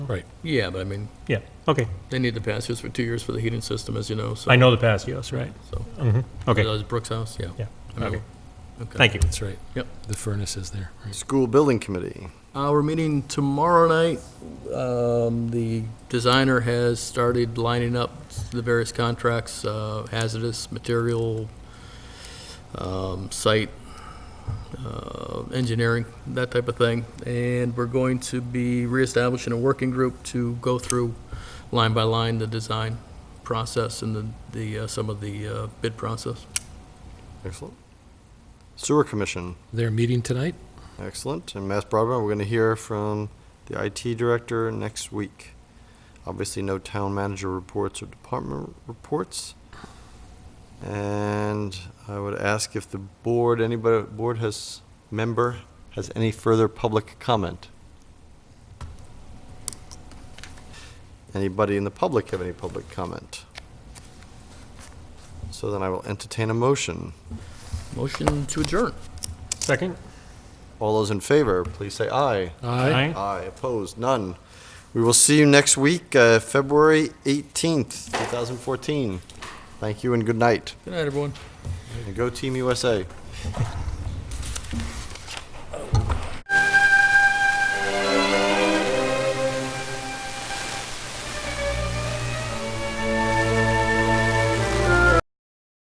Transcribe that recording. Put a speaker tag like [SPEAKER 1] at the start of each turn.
[SPEAKER 1] Right.
[SPEAKER 2] Yeah, but I mean,
[SPEAKER 3] Yeah, okay.
[SPEAKER 2] they need the pass years for two years for the heating system, as you know, so.
[SPEAKER 3] I know the Passios, right?
[SPEAKER 2] so-
[SPEAKER 3] Mhm.
[SPEAKER 2] That
[SPEAKER 3] Okay,
[SPEAKER 2] was Brooks' house, yeah.
[SPEAKER 3] yeah,
[SPEAKER 2] I remember. Okay.
[SPEAKER 3] thank you.
[SPEAKER 1] That's right.
[SPEAKER 2] Yep.
[SPEAKER 1] The furnace is there. right.
[SPEAKER 4] School Building Committee.
[SPEAKER 2] Uh, we're meeting tomorrow night. Um, the designer has started lining up the various contracts, uh, hazardous material, um, site, uh, engineering, that type of thing. And we're going to be reestablishing a working group to go through line by line the design process and the, the, uh, some of the, uh, bid process.
[SPEAKER 4] Excellent. Sewer Commission.
[SPEAKER 1] They're meeting tonight?
[SPEAKER 4] Excellent. And Mass Broadband, we're going to hear from the IT Director next week. Obviously, no town manager reports or department reports. And I would ask if the board, anybody, board has, member has any further public comment? Anybody in the public have any public comment? So then I will entertain a motion.
[SPEAKER 2] Motion to adjourn.
[SPEAKER 3] Second?
[SPEAKER 4] All those in favor, please say aye.
[SPEAKER 3] Aye.
[SPEAKER 4] Aye, opposed, none. We will see you next week, uh, February 18th, 2014. Thank you and good night.
[SPEAKER 2] Good night, everyone.
[SPEAKER 4] And go Team USA.